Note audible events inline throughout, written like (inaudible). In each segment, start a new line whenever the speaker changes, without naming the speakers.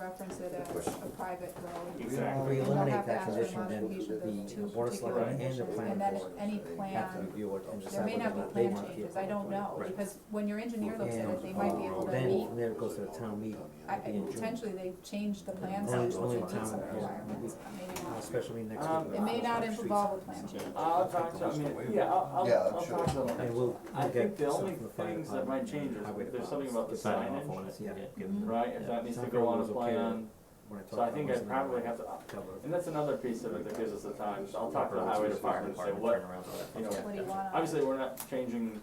reference it as a private road.
We
Exactly.
already
And they'll
eliminate
have to
that
ask for
condition,
modification of
then
those
the
two
board
particular
of selectmen and the
conditions,
planning
And then
board
any
have to
plan,
review it and
there
decide
may
whether
not be
or not they
plan
want to keep it.
changes, I don't know,
Right.
because when your engineer looks at it, they might be able to
And
meet,
then, then it goes to the town meeting,
I, I-
it'll be in June,
potentially they've changed the plan
Only-
such that
only
it meets
town,
some
yeah,
requirements, maybe
a
not.
special meeting next
Um,
week.
It may not involve a plan change.
I'll talk to, I mean, yeah, I'll,
Yeah, I'm
I'll, I'll
sure.
talk to them.
And we'll,
I
we'll
think
get
the
stuff
only
from the fire
things that
department
might
and
change
highway
is, there's
department.
something about the
Signing off on
signage,
it.
Yeah.
Mhm.
right, if that needs to go on a plan,
When I talk
so I
to
think
them,
I
it's
probably
gonna
have to,
cover it.
and that's another piece of it that gives us the time, so I'll talk to the highway department and say
Turn
what,
around to that.
you know,
What do you want on
obviously, we're not changing
it?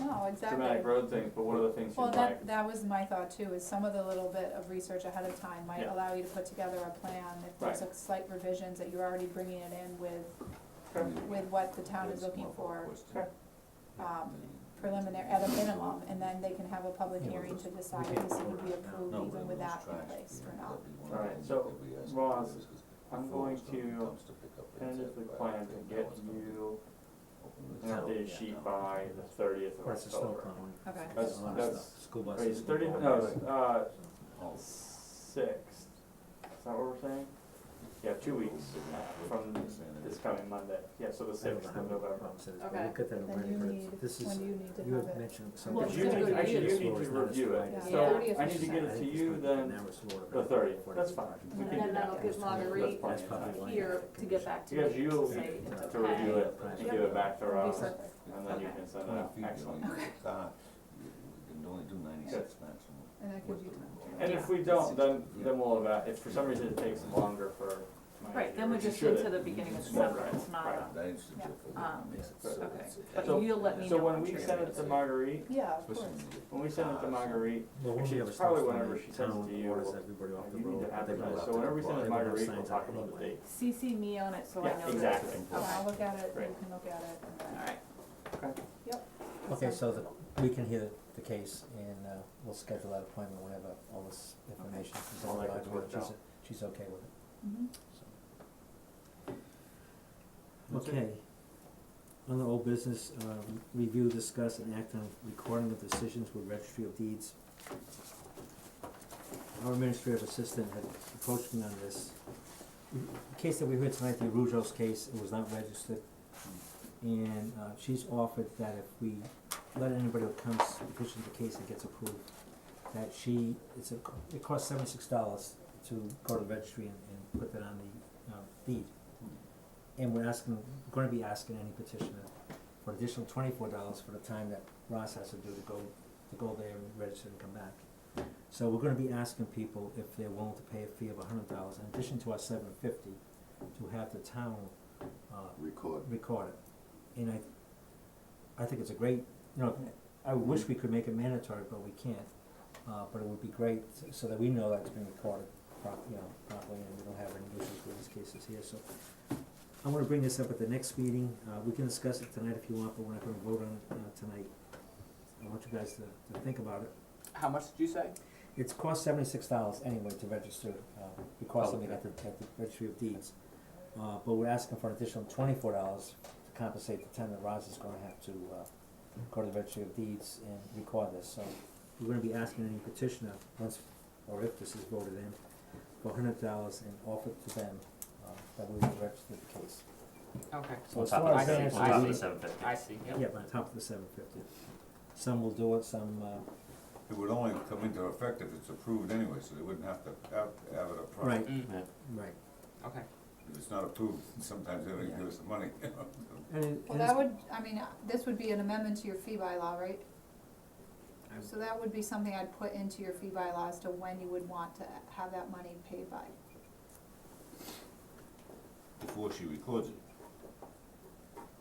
No, exactly.
dramatic road things, but what are the things you
Well,
like?
that, that was my thought too, is some of the little bit of research ahead of time might
Yeah.
allow you to put together a plan. If there's a slight revisions that you're already bringing it in with, with what the town is looking for, um, preliminary, at a minimum, and then they can have a public
Yeah,
hearing to decide
can't
if this would be
order it now.
approved even with that in place or not.
Alright, so, Roz, I'm going to tentatively plan to get you an
Yeah.
updated sheet by the thirtieth of
That's the snow
October.
plowing.
Okay.
That's-
A lot of
that's-
stuff. School
Wait,
buses.
it's thirtieth, no, it's, uh, sixth, is that what we're saying? Yeah, two weeks from this coming Monday, yeah, so the
I don't
sixth
know how
of
many
November.
problems it is, but
Okay.
we'll get that in
Then you
writing, but
need,
it's- this
when
is,
do you need to
you
have
had
it?
mentioned
Well,
something.
it's
You
gonna
need,
go to
actually, you
you.
need to review it,
Yeah.
so
Yeah.
I need to get it to you then the thirtieth, that's fine, we
And
can do
then I'll
that.
give Marguerite
That's
fine.
here to get back to me,
Because
say
you'll-
it's
To review
okay.
it and give it back to
That'd be
Ross,
perfect.
and then you can send it out, excellent.
Ah, You can only do ninety-six maximum.
And that gives you time.
And if we don't, then, then we'll, eva- if for some reason it takes longer for. my
Right, then we're
review,
just
should
into
it-
the beginning of
Right,
December,
right,
it's not
right.
a-
That is the difference.
Um,
So
okay.
it's-
But
So-
you'll let me
So
know
when
once
we
you're
send
gonna
it to Marguerite,
Yeah, of course.
especially when you get
when we send it to
cars.
Marguerite,
Well, once
Actually,
Ah, you have a
it's
stop
probably
sign,
whenever she
the
sends
town
it to you,
orders
we'll-
everybody off
you
the
need
road,
to
they will
advertise,
have
so
to-
wonna- whenever we
they
send it to
will have
Marguerite, we'll
signs
talk
out
about the
anyway.
date.
CC me on it, so I
Yeah,
know that.
exactly.
Oh, I'll look at it, and you
Great.
can look at it. and then-
Alright,
Okay, so the, we can hear the case and, uh, we'll schedule that appointment whenever all this information is
All
all
that
about,
gets worked
she's,
out.
she's okay with it,
Mhm.
so.
That's it.
Okay, under old business, uh, review, discuss and act on recording of decisions with registry of deeds. Our administrative assistant had approached me on this. The case that we heard tonight, the Arujos case, it was not registered. And uh she's offered that if we let anybody who comes petition the case and gets approved, that she, it's a, co- it costs seventy-six dollars to go to the registry and and put that on the uh deed. And we're asking, gonna be asking any petitioner for an additional twenty-four dollars for the time that Ross has to do to go, to go there and register and come back. So we're gonna be asking people if they're willing to pay a fee of a hundred dollars in addition to our seven fifty, to have the town uh
Record.
record it. And I, I think it's a great, you know, I wish we could make it mandatory, but we can't. Uh, but it would be great so that we know that it's been recorded prop, you know, properly and we don't have any issues with these cases here, so. I'm gonna bring this up at the next meeting, uh, we can discuss it tonight if you want, but we're not gonna vote on it, uh, tonight. I want you guys to, to think about it.
How much did you say?
It's cost seventy-six dollars anyway to register, uh, because something at the, at the registry of deeds. Uh, but we're asking for an additional twenty-four dollars to compensate the time that Roz is gonna have to, uh, go to the registry of deeds and record this, so we're gonna be asking any petitioner, once, or if this is voted in, for hundred dollars and offer it to them, uh, that we will register the case.
Okay.
So as
On
far
top
as
of the,
that
on top of
I see,
is the-
the seven fifty.
I see, yep.
Yeah, on top of the seven fifty. Some will do it, some, uh,
It would only come into effect if it's approved anyway, so they wouldn't have to have, have it approved.
right,
Mm,
right,
okay.
If it's not approved, sometimes they don't give us the money. (laughs)
and it, and
Well,
it's-
that would, I mean, uh, this would be an amendment to your fee bylaw, right?
I'm-
So that would be something I'd put into your fee bylaw as to when you would want to have that money paid by.
Before she records it.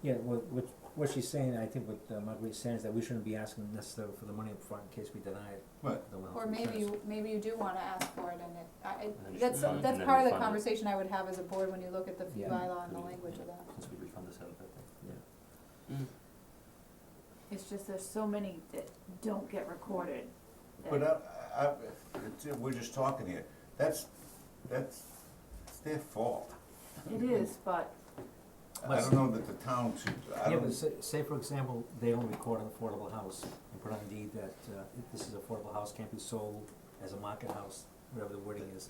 Yeah, what, what, what she's saying, I think what uh, Marguerite's saying is that we shouldn't be asking necessarily for the money upfront in case we deny it.
Right.
that we'll have
Or
to
maybe
return it.
you, maybe you do wanna ask for it and it, I, I-
And then
that's,
just fund it,
that's
and then
part of the
refund it.
conversation I would have as a board when you look at the fee
Yeah.
bylaw and the language of that.
Since we refund the seven fifty.
Mm.
it's just there's so many that don't get recorded. that-
But uh, I, I, it's, we're just talking here, that's, that's, it's their fault.
It is, but
I don't know that the town should, I
Yeah,
don't,
but say, say for example, they only record an affordable house and put on deed that, uh, this is affordable house, can't be sold as a market house, whatever the wording is.